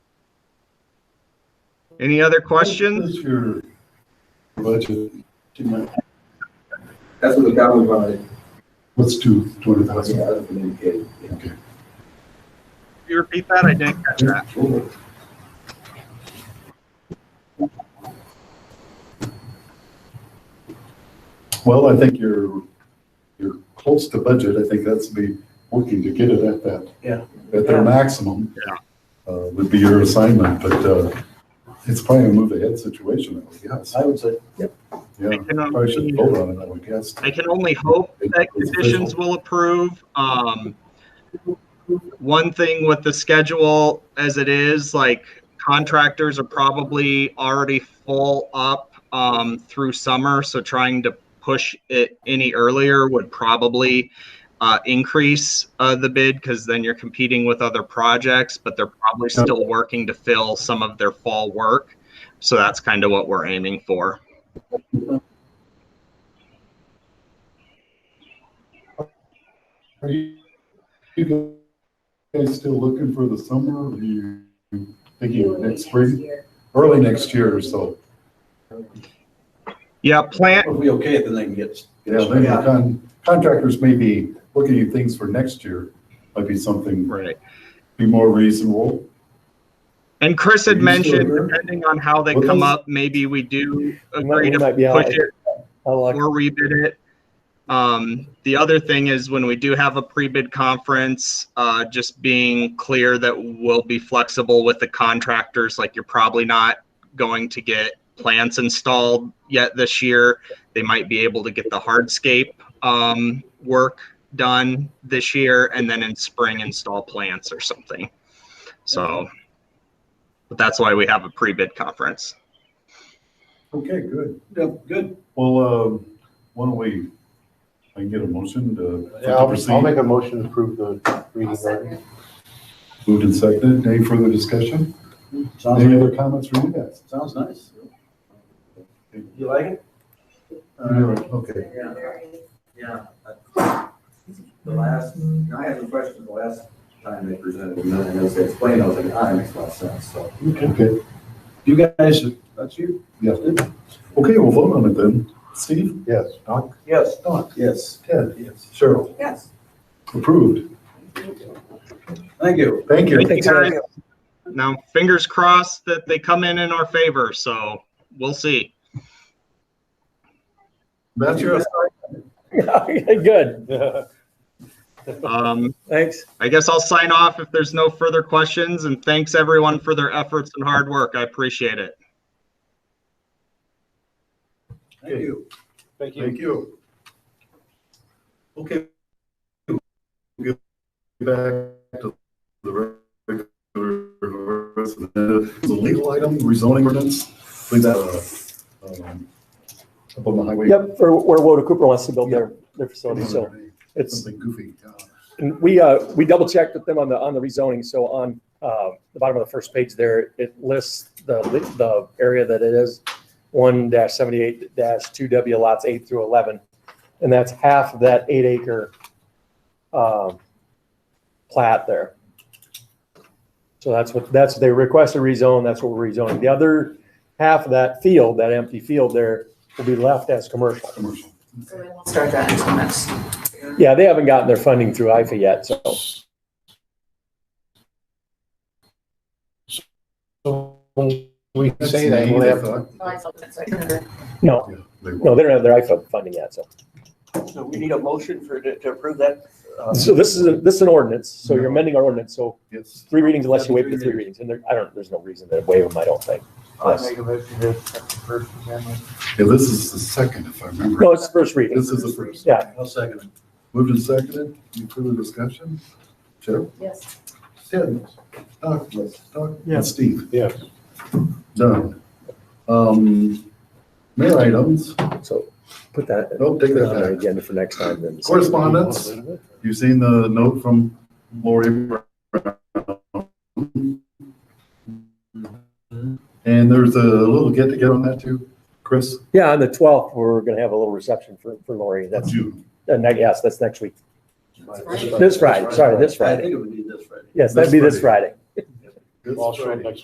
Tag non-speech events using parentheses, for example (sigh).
Any other questions? What's your budget? Do you mind? That's what the government wanted. What's two, twenty That's thousand? what I've been indicated. Yeah. Okay. Can you repeat that? I didn't catch that. Sure. Well, I think you're, you're close to budget. I think that's be working to get it at that. Yeah. At their maximum. Yeah. Uh, would be your assignment, but, uh, it's probably a move ahead situation, I would guess. I would say, Yeah, I can only- probably should vote on it, I would guess. I can only hope that conditions will approve. Um, one thing with the schedule as it is, like contractors are probably already full up um, through summer, so trying to push it any earlier would probably uh, increase uh, the bid because then you're competing with other projects, but they're probably still working to fill some of their fall work. So that's kind of what we're aiming for. Are you you guys still looking for the summer, or are you thinking next spring? Early next year or so. Yeah, plant If we okay it, then they can get. Yeah, then the con- contractors may be looking at things for next year, might be something, right. be more reasonable. And Chris Are had you still mentioned, there? depending on how they What come was- up, maybe we do we might, agree we to might be out. push it I'll, uh, or rebid it. Um, the other thing is when we do have a pre-bid conference, uh, just being clear that we'll be flexible with the contractors, like you're probably not going to get plants installed yet this year. They might be able to get the hardscape, um, work done this year and then in spring install plants or something. So, but that's why we have a pre-bid conference. Okay, good. Yeah, good. Well, um, why don't we, I can get a motion to yeah, I'll, proceed. I'll make a motion to approve the reading. order. Second. Moved and seconded. Any further discussion? Sounds, Any other comments from you guys? sounds nice. You like it? Mm-hmm. No, Okay. Yeah. Yeah. The last, I had some questions the last time they presented, and then I was explaining, I was like, ah, that makes a lot of sense, so. Okay, You guys, that's you? yeah. Okay, we'll vote on it then. Steve? Yes. Doc? Yes. Doc? Yes. Ted? Yes. Cheryl? Yes. Approved. Thank you. Thank you. Thank you, guys. Now, fingers crossed that they come in in our favor, so we'll see. That's your, (laughs) Good. Um, Thanks. I guess I'll sign off if there's no further questions, and thanks everyone for their efforts and hard work. I appreciate it. Thank you. Thank thank you. Okay. Back to the regular, rest of the the legal item, rezoning ordinance, please, uh, um, up on the highway. Yep, for where Woda Cooper wants to build their, their facility, so it's, Something goofy. yeah. and we, uh, we double checked with them on the, on the rezoning, so on, uh, the bottom of the first page there, it lists the, the area that it is, one dash seventy-eight dash two W lots eight through eleven, and that's half of that eight acre, um, plat there. So that's what, that's, they requested rezone, that's what we're rezoning. The other half of that field, that empty field there, will be left as commercial. Commercial. So we won't start that until next. Yeah, they haven't gotten their funding through IFA yet, so. So when we say that, will they have, uh, No, They no, they don't have their IFA funding yet, so. So we need a motion for, to approve that? uh, So this is, a- this is an ordinance, so you're amending our ordinance, so Yes. three readings unless you wait for three readings, and there, I don't, there's no reason to waive them, I don't think. I make a motion to accept the first amendment. Yeah, this is the second, if I remember. No, it's the first reading. This is the first. Yeah. I'll second it. Moved and seconded. Any further discussion? Cheryl? Yes. Ted? Doc? Doc? Yeah. And Steve? yeah, Done. Um, mayor items, So put that nope, take on our that back. agenda for next time then. Correspondence, you've seen the note from Lori Brown. And there's a little get-together on that too, Chris, Yeah, on the twelfth, we're gonna have a little reception for, for Lori, that's, June. uh, ne- yes, that's next week. Friday. This Friday, sorry, this I Friday. think it would be this Friday. Yes, that'd be this Friday. This also Friday. next